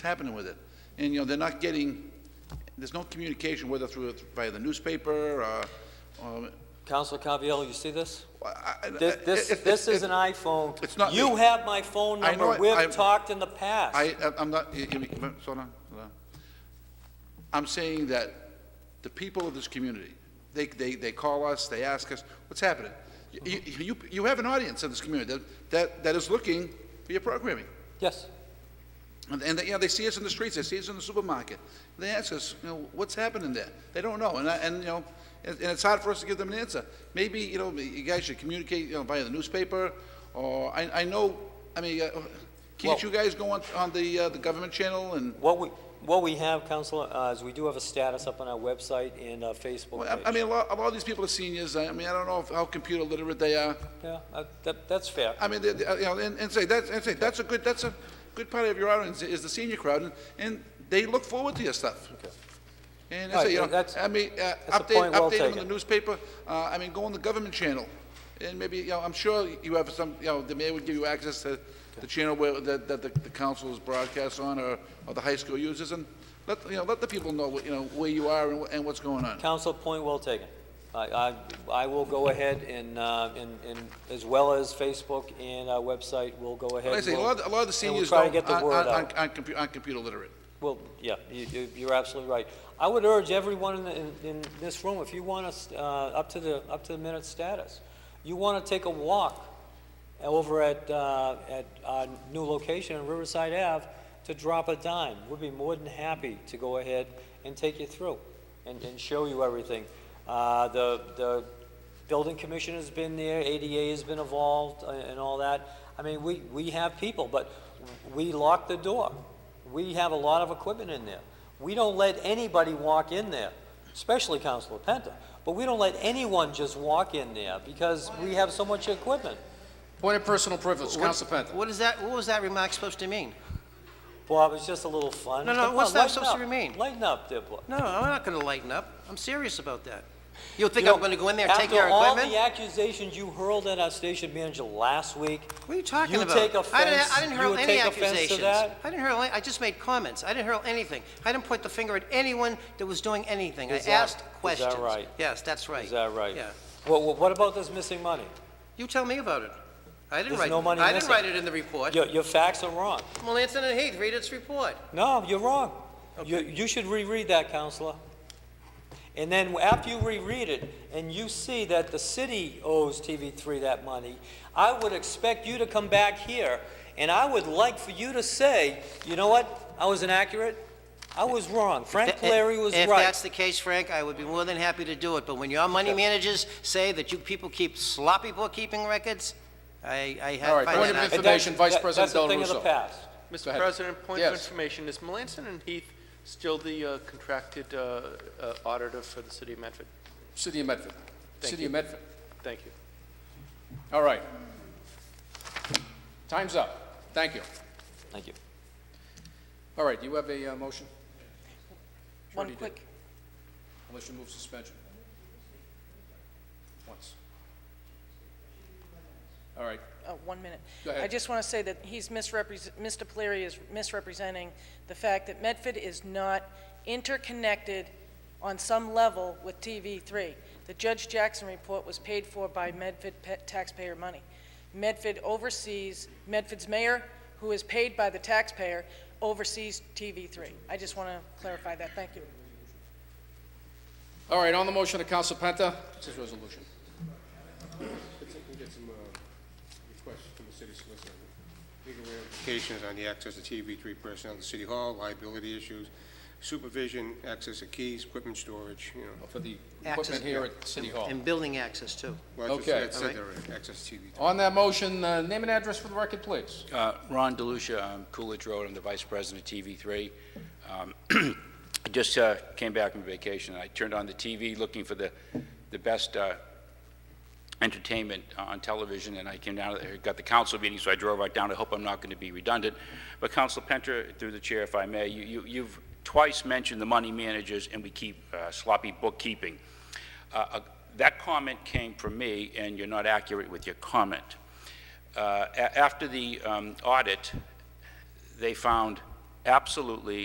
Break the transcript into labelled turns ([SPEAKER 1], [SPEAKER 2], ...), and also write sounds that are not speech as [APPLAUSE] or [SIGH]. [SPEAKER 1] happening with it. And, you know, they're not getting, there's no communication, whether through, via the newspaper, or, or,
[SPEAKER 2] Counselor Caviello, you see this?
[SPEAKER 1] I- I-
[SPEAKER 2] This, this,
[SPEAKER 1] it- it-
[SPEAKER 2] this is
[SPEAKER 1] it-
[SPEAKER 2] an iPhone.
[SPEAKER 1] it's not
[SPEAKER 2] You
[SPEAKER 1] me.
[SPEAKER 2] have my phone
[SPEAKER 1] I know
[SPEAKER 2] number.
[SPEAKER 1] it. I'm-
[SPEAKER 2] We've talked in the past.
[SPEAKER 1] I, I- I'm not, you- you- you- hold on, hold on. I'm saying that the people of this community, they, they, they call us, they ask us, what's happening? You, you, you- you have an audience in this community that- that, that is looking for your programming.
[SPEAKER 2] Yes.
[SPEAKER 1] And, and, you know, they see us in the streets, they see us in the supermarket. They ask us, you know, what's happening there? They don't know, and, I- and, you know, and and it's hard for us to give them an answer. Maybe, you know, you guys should communicate, you know, via the newspaper, or, I, I know, I mean, uh, can't
[SPEAKER 2] Well-
[SPEAKER 1] you guys go on, on the, uh, the government channel and,
[SPEAKER 2] What we, what we have, Counselor, uh, is we do have a status up on our website and uh,
[SPEAKER 1] well,
[SPEAKER 2] Facebook
[SPEAKER 1] I- I
[SPEAKER 2] page.
[SPEAKER 1] mean, a lot, a lot of these people are seniors, I I mean, I don't know if- how computer literate they are.
[SPEAKER 2] Yeah, uh, that, that's fair.
[SPEAKER 1] I mean, they- they- you know, and, and say, that's, and say, that's a good, that's a good part of your audience is the senior crowd, and, and they look forward to your stuff. And I
[SPEAKER 2] All right,
[SPEAKER 1] say, you know,
[SPEAKER 2] that's-
[SPEAKER 1] I mean, uh,
[SPEAKER 2] a
[SPEAKER 1] update,
[SPEAKER 2] point well
[SPEAKER 1] update them in the
[SPEAKER 2] taken.
[SPEAKER 1] newspaper, uh, I mean, go on the government channel, and maybe, you know, I'm sure you have some, you know, the mayor would give you access to the channel where, that, that the, the council is broadcast on, or, or the high school uses, and let, you know, let the people know, what you know, where you are and, wh- and what's going on.
[SPEAKER 2] Counsel, point well taken. I, I, I will go ahead and, uh, and, and as well as Facebook and our website, we'll go ahead.
[SPEAKER 1] Like I
[SPEAKER 2] and
[SPEAKER 1] say, a
[SPEAKER 2] we'll-
[SPEAKER 1] lot, a lot of the
[SPEAKER 2] and we'll
[SPEAKER 1] seniors
[SPEAKER 2] try to
[SPEAKER 1] don't,
[SPEAKER 2] get the
[SPEAKER 1] aren't,
[SPEAKER 2] word out.
[SPEAKER 1] aren't, aren't compu- aren't computer literate.
[SPEAKER 2] Well, yeah, you, you- you're absolutely right. I would urge everyone in, in- in this room, if you want us, uh, up to the, up to the minute status, you want to take a walk over at, uh, at our new location on Riverside Ave to drop a dime. We'd be more than happy to go ahead and take you through and, and show you everything. Uh, the, the building commission has been there, ADA has been involved uh, and all that. I mean, we, we have people, but we lock the door. We have a lot of equipment in there. We don't let anybody walk in there, especially Councilor Penta, but we don't let anyone just walk in there because we have so much equipment.
[SPEAKER 3] Point of personal privilege,
[SPEAKER 4] What-
[SPEAKER 3] Counsel Penta.
[SPEAKER 4] What is that, what was that remark supposed to mean?
[SPEAKER 2] Bob, it's just a little fun.
[SPEAKER 4] No, no,
[SPEAKER 2] Come
[SPEAKER 4] what's
[SPEAKER 2] on,
[SPEAKER 4] that
[SPEAKER 2] lighten
[SPEAKER 4] supposed to
[SPEAKER 2] up.
[SPEAKER 4] remain?
[SPEAKER 2] Lighten up, Diplo.
[SPEAKER 4] No, I'm not gonna lighten up. I'm serious about that. You think
[SPEAKER 2] You
[SPEAKER 4] I'm
[SPEAKER 2] know,
[SPEAKER 4] gonna go in there and take your
[SPEAKER 2] After all the
[SPEAKER 4] equipment?
[SPEAKER 2] accusations you hurled at our station manager last week,
[SPEAKER 4] What are you talking
[SPEAKER 2] you
[SPEAKER 4] about?
[SPEAKER 2] take
[SPEAKER 4] I didn't-
[SPEAKER 2] offense-
[SPEAKER 4] I didn't
[SPEAKER 2] you
[SPEAKER 4] hurl
[SPEAKER 2] would
[SPEAKER 4] any
[SPEAKER 2] take offense to
[SPEAKER 4] accusations.
[SPEAKER 2] that?
[SPEAKER 4] I didn't hurl, any- I just made comments. I didn't hurl anything. I didn't point the finger at anyone that was doing anything. I
[SPEAKER 2] Is that-
[SPEAKER 4] asked
[SPEAKER 2] is that
[SPEAKER 4] questions.
[SPEAKER 2] right?
[SPEAKER 4] Yes, that's right.
[SPEAKER 2] is that right?
[SPEAKER 4] Yeah.
[SPEAKER 2] Well, well, what about this missing money?
[SPEAKER 4] You tell me about it. I didn't
[SPEAKER 2] There's
[SPEAKER 4] write,
[SPEAKER 2] no money
[SPEAKER 4] I didn't
[SPEAKER 2] missing.
[SPEAKER 4] write it in the report.
[SPEAKER 2] Your, your facts are wrong.
[SPEAKER 4] Well, Anson and Heath, read its report.
[SPEAKER 2] No, you're wrong. You, you should reread that, Counselor. And then after you reread it and you see that the city owes TV3 that money, I would expect you to come back here and I would like for you to say, you know what? I was inaccurate. I was wrong. Frank Larry was
[SPEAKER 4] If
[SPEAKER 2] right.
[SPEAKER 4] that's the case, Frank, I would be more than happy to do it, but when your money managers say that you people keep sloppy bookkeeping records, I, I
[SPEAKER 3] All
[SPEAKER 4] have... find
[SPEAKER 3] right, point
[SPEAKER 4] that
[SPEAKER 3] of
[SPEAKER 4] out.
[SPEAKER 2] And
[SPEAKER 3] Information,
[SPEAKER 2] that's-
[SPEAKER 3] Vice
[SPEAKER 2] that-
[SPEAKER 3] President Del
[SPEAKER 2] That's a thing
[SPEAKER 3] Russo.
[SPEAKER 2] of the past.
[SPEAKER 3] Go
[SPEAKER 5] Mr.
[SPEAKER 3] ahead.
[SPEAKER 5] President, point of
[SPEAKER 3] Yes.
[SPEAKER 5] information, is Melanson and Heath still the uh, contracted uh, uh, auditor for the city of Medford?
[SPEAKER 3] City of Medford.
[SPEAKER 5] Thank
[SPEAKER 3] City
[SPEAKER 5] you.
[SPEAKER 3] of Medford.
[SPEAKER 5] Thank you.
[SPEAKER 3] All right. Time's up. Thank you.
[SPEAKER 2] Thank you.
[SPEAKER 3] All right, you have a uh, motion,
[SPEAKER 6] One
[SPEAKER 3] Sure you do.
[SPEAKER 6] quick,
[SPEAKER 3] unless you move suspension. Once. All right,
[SPEAKER 6] uh, one minute.
[SPEAKER 3] Go ahead.
[SPEAKER 6] I just want to say that he's misrepresent, Mr. Polari is misrepresenting the fact that Medford is not interconnected on some level with TV3. The Judge Jackson report was paid for by Medford pa- taxpayer money. Medford oversees, Medford's mayor, who is paid by the taxpayer, oversees TV3. I just want to clarify that. Thank you.
[SPEAKER 3] all right, on the motion of Counsel Penta, it's his resolution.
[SPEAKER 7] Let's see if we can get some uh, requests from the city solicitor. Legal ramifications on the access to TV3 personnel at City Hall, liability issues, supervision, access to keys, equipment storage, you know.
[SPEAKER 3] for the
[SPEAKER 4] Access-
[SPEAKER 3] equipment here at City Hall.
[SPEAKER 4] And building access, too.
[SPEAKER 7] Well, I just-
[SPEAKER 3] Okay.
[SPEAKER 7] I said there were access to TV3.
[SPEAKER 3] On that motion, uh, name and address for the record, please.
[SPEAKER 8] Uh, Ron DeLucia, um, Coolidge Road, I'm the Vice President of TV3. Um, [CLEARS THROAT] I just uh, came back from vacation, I turned on the TV looking for the, the best uh, entertainment on television, and I came down, I got the council meeting, so I drove right down, I hope I'm not going to be redundant. But Council Penter, through the chair, if I may, you- you- you've twice mentioned the money managers, and we keep uh, sloppy bookkeeping. Uh, uh, That comment came from me, and you're not accurate with your comment. Uh, a- After the um, audit, they found absolutely